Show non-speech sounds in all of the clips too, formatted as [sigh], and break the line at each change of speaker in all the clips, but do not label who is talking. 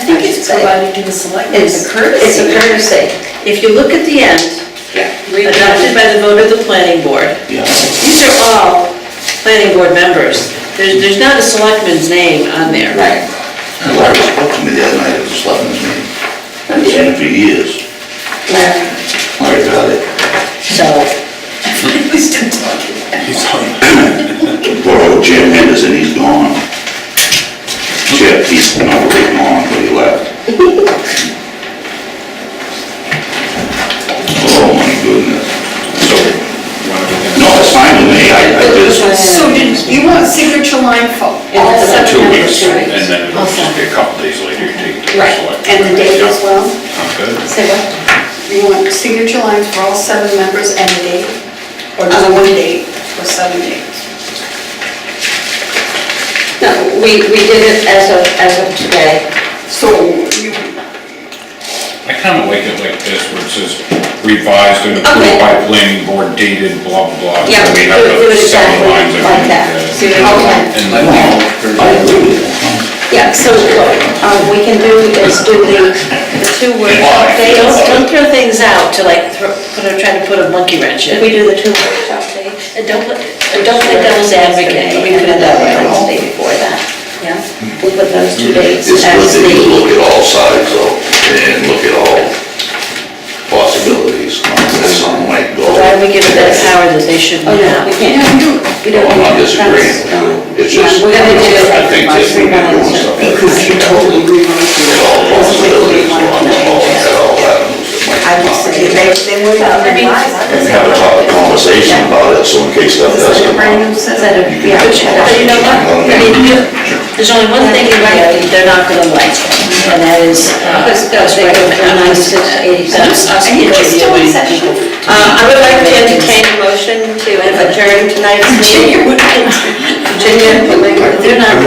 I think it's provided to the selectmen as
It's a
a courtesy. [laughs]
courtesy. If you look at the end, adopted by the vote of the planning board,
Yeah.
these are all planning board members. There's, there's not a selectman's name on there.
Right.
Larry spoke to me the other night at the selectmen's meeting. I haven't seen him for years.
Larry,
Larry got it.
So, we still talking.
Poor old Jim Henderson, he's gone. Chip, he's not really gone, but he
[laughs]
left. Oh, my goodness. So, no, it's fine with me, I, I just,
So did, you want signature line for all
Yeah,
seven
Two
members?
weeks, and then it'll just be a couple days later, you take. the
Right,
select-
and the date as well?
Yeah, Sounds good.
Say what? You want signature lines for all seven members and the date? Or just one date for seven dates?
No, we, we did it as of, as of today.
So you,
I kind of like it like this, where it says revised and
Okay.
approved by planning board dated, blah, blah, blah.
Yeah,
So we have
do it- do
the
it
seven
exactly
lines of-
like that. So you
uh,
don't-
And
I
then
don't know, I agree with you.
Yeah, so what uh, we can do is do the, the two word
Why?
update.
Don't, don't throw things out to like, throw, put a, try to put a monkey wrench in.
We do the two word update.
And don't, put- and don't play devil's advocate, let me put it that way.
Wednesday before that, yeah. We'll put those two dates
It's good
as
that you look
the,
at all sides though, and look at all possibilities, not just something like go.
Why do we give it that power that they shouldn't
oh no, we
have?
can't, we don't.
I'm not
that's-
disagreeing, it's just,
We're gonna do
I think that
three
when you're doing
months.
something, you should totally look at all possibilities on the whole, and at all avenues that might
I
come
would
up.
say they, they would have been
And have a topic conversation about it, so in case stuff does
Like a
come
brand
up.
new
Instead
set
of,
of,
you can
yeah,
have
but you
a
you know what, I mean, you-
There's only one thing you're right, they're not gonna like, and that is, uh,
because
us
they go from
recommend- us-
ninety-six to eighty-seven.
us- us
Are you still in
interviewing
session?
people.
Uh, I would like to entertain a motion to adjourn tonight's
[laughs]
meeting. Virginia,
They're not,
[laughs]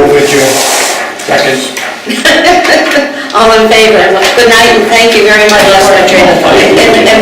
all in favor, good night and thank you very much, Lester. And- and-